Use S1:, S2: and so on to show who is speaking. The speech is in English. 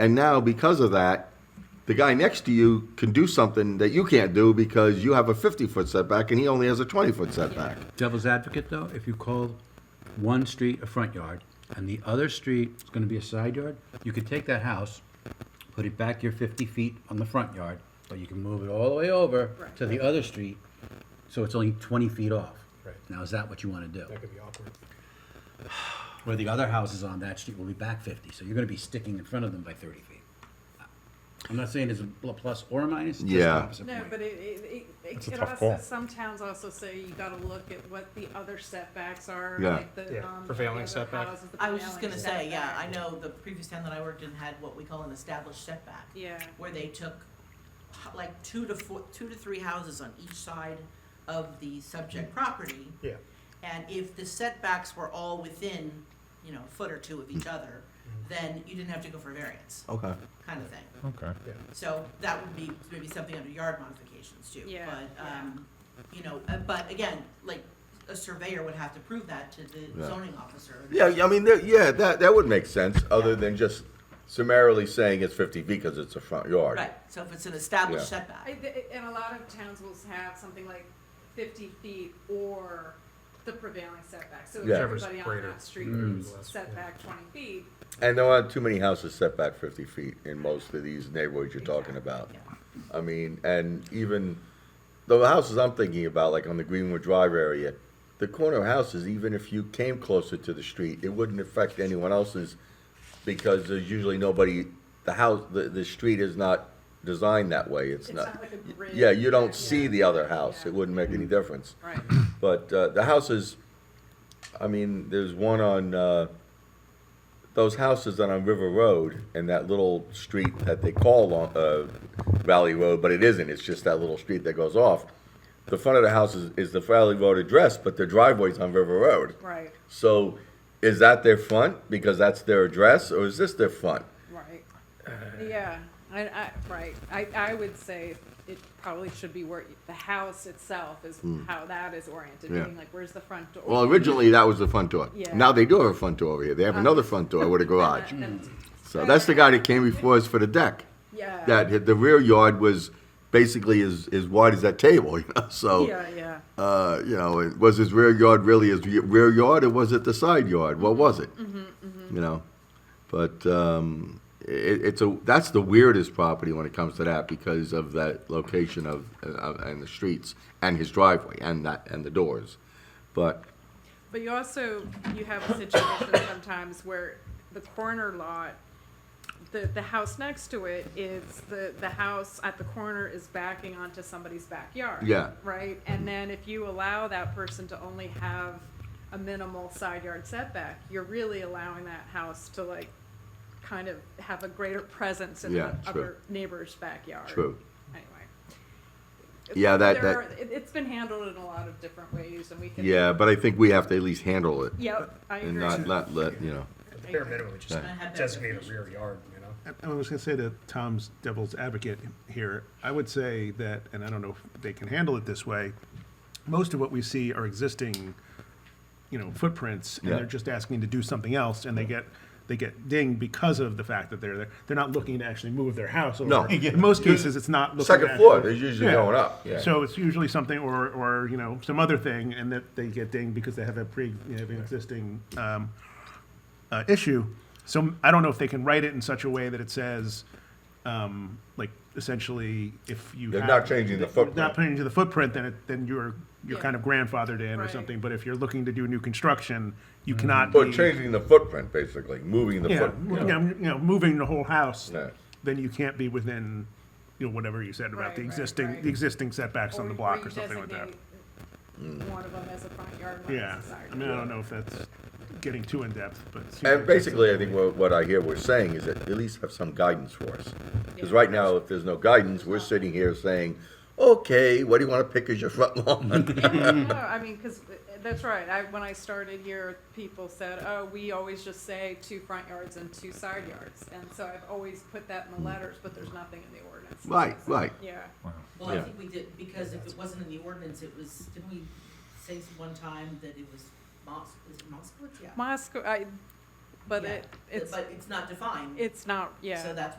S1: And now, because of that, the guy next to you can do something that you can't do because you have a 50 foot setback and he only has a 20 foot setback.
S2: Devil's advocate, though, if you call one street a front yard and the other street is gonna be a side yard, you could take that house, put it back your fifty feet on the front yard, but you can move it all the way over to the other street, so it's only twenty feet off.
S3: Right.
S2: Now, is that what you wanna do?
S3: That could be awkward.
S2: Where the other houses on that street will be back fifty, so you're gonna be sticking in front of them by thirty feet. I'm not saying it's a pl- plus or a minus, it's just the
S1: Yeah.
S2: opposite
S4: No,
S2: point.
S4: but it, it, it,
S3: That's a
S4: it
S3: tough
S4: also,
S3: call.
S4: some towns also say you gotta look at what the other setbacks are,
S1: Yeah.
S4: like the,
S3: Yeah,
S4: um.
S3: prevailing
S4: the other
S3: setback.
S4: houses, the
S5: I was just
S4: prevailing
S5: gonna say, yeah, I
S4: setback.
S5: know the previous town that I worked in had what we call an established setback.
S4: Yeah.
S5: Where they took h- like two to four, two to three houses on each side of the
S1: Mm.
S5: subject property.
S3: Yeah.
S5: And if the setbacks were all within, you know, a foot or two of each
S1: Mm.
S5: other, then you didn't have to go for variance,
S1: Okay.
S5: kind of thing.
S6: Okay.
S5: So that would be maybe something under yard modifications too.
S4: Yeah,
S5: But,
S4: yeah.
S5: um, you know, uh, but again, like, a surveyor would have to prove that to the
S1: Yeah.
S5: zoning officer.
S1: Yeah, I mean, there- yeah, that, that would make sense other than just summarily saying it's 50 feet because it's a front yard.
S5: Right, so if it's an established
S1: Yeah.
S4: I,
S5: setback,
S4: th- and a lot of towns will have something like fifty feet or the prevailing setback, so if
S1: Yeah.
S3: Whichever's
S4: everybody on
S3: greater.
S4: that street
S3: Mm.
S4: is
S3: Less, yeah.
S4: setback twenty feet,
S1: And there aren't too many houses set back 50 feet in most of these neighborhoods you're talking about.
S5: yeah.
S1: I mean, and even the houses I'm thinking about, like on the Greenwood Drive area, the corner houses, even if you came closer to the street, it wouldn't affect anyone else's because there's usually nobody, the house, the, the street is not designed that way. It's
S4: it's not
S1: not,
S4: like a bridge.
S1: yeah, you don't see the other house. It
S4: Yeah.
S1: wouldn't make any difference.
S4: Right,
S1: But uh, the houses, I mean, there's one on, uh, those houses that on River Road and that little street that they call Lon- uh, Valley Road, but it isn't, it's just that little street that goes off. The front of the house is, is the Valley Road address, but their driveway's on River Road.
S4: right,
S1: So is that their front because that's their address, or is this their front?
S4: right,
S3: Uh.
S4: yeah, I, I, right, I, I would say it probably should be where, the house itself is how that is oriented,
S1: Mm. Yeah.
S4: meaning like, where's the front door?
S1: Well, originally, that was the front door.
S4: Yeah.
S1: Now they do have a front door over here, they have another front door with a garage.
S4: And that-
S1: So that's the guy that came before us for the deck.
S4: Yeah.
S1: that hit- the rear yard was basically as, as wide as that table, you know, so.
S4: Yeah, yeah.
S1: Uh, you know, it- was his rear yard really his re- rear yard or was it the side yard? What was it?
S4: Mm-hmm,
S1: You know, but, um, it, it's a, that's the weirdest property when it comes to that because of that location of, uh, and the streets and his driveway and that, and the doors. But,
S4: But you also, you have a situation sometimes where the corner lot, the, the house next to it is, the, the house at the corner is backing onto somebody's backyard.
S1: Yeah.
S4: Right? And then if you allow that person to only have a minimal side yard setback, you're really allowing that house to like, kind of have a greater presence in the
S1: Yeah, true.
S4: other neighbor's backyard.
S1: True.
S4: Anyway.
S1: Yeah, that-
S4: There
S1: that-
S4: are- it- It's been handled in a lot of different ways and we can.
S1: yeah, but I think we have to at least handle it
S4: Yep, I agree.
S1: and not, not let, you know.
S3: At the bare minimum, just
S5: I had that
S3: designate a rear yard, you know?
S6: I was gonna say that Tom's devil's advocate here, I would say that, and I don't know if they can handle it this way, most of what we see are existing, you know, footprints, and
S1: Yeah.
S6: they're just asking to do something else, and they get, they get dinged because of the fact that they're there. They're not looking to actually move their house over.
S1: No.
S6: In most cases, it's not looking.
S1: Second
S6: to
S1: floor,
S6: actually-
S1: they're usually
S6: Yeah.
S1: going up, yeah.
S6: So it's usually something, or, or, you know, some other thing, and that they get dinged because they have a pre, you know, an existing, um, uh, issue. So I don't know if they can write it in such a way that it says, um, like essentially, if you
S1: They're
S6: have-
S1: not changing the footprint.
S6: not changing the footprint, then it, then you're you're
S4: Yeah.
S6: kind of grandfathered in or
S4: Right.
S6: something. But if you're looking to do new construction, you cannot.
S1: Or
S6: be-
S1: Mm-hmm. changing the footprint, basically, moving the
S6: Yeah,
S1: footprint.
S6: yeah, you know, moving the whole house,
S1: Yeah.
S6: then you can't be within, you know, whatever you said about
S4: Right,
S6: the
S4: right,
S6: existing
S4: right.
S6: the existing setbacks on the block or, something like that.
S4: that. One of them as a front yard, one
S6: Yeah,
S4: as a side
S6: I mean, I
S4: yard.
S6: don't know if that's getting too in depth, but it seems like
S1: And
S6: that's
S1: basically, I
S6: something-
S1: think what, what I hear we're saying is that at least have some guidance for us. Because
S4: Yeah.
S1: right now, if there's no guidance, we're sitting here saying, okay, what do you want to pick as your front lawn?
S4: No, I mean, because that's right. I, when I started here, people said, oh, we always just say two front yards and two side yards. And so I've always put that in the letters, but there's nothing in the ordinance.
S1: Right, right.
S4: Yeah.
S5: Well, I
S1: Yeah.
S5: think we did, because if it wasn't in the ordinance, it was, didn't we say one time that it was Mos, is it Moskowitz? Yeah.
S4: Moscow, I,
S5: but
S4: Yeah.
S5: it, it's,
S4: But it's not defined,
S5: it's not, yeah.
S4: so that's what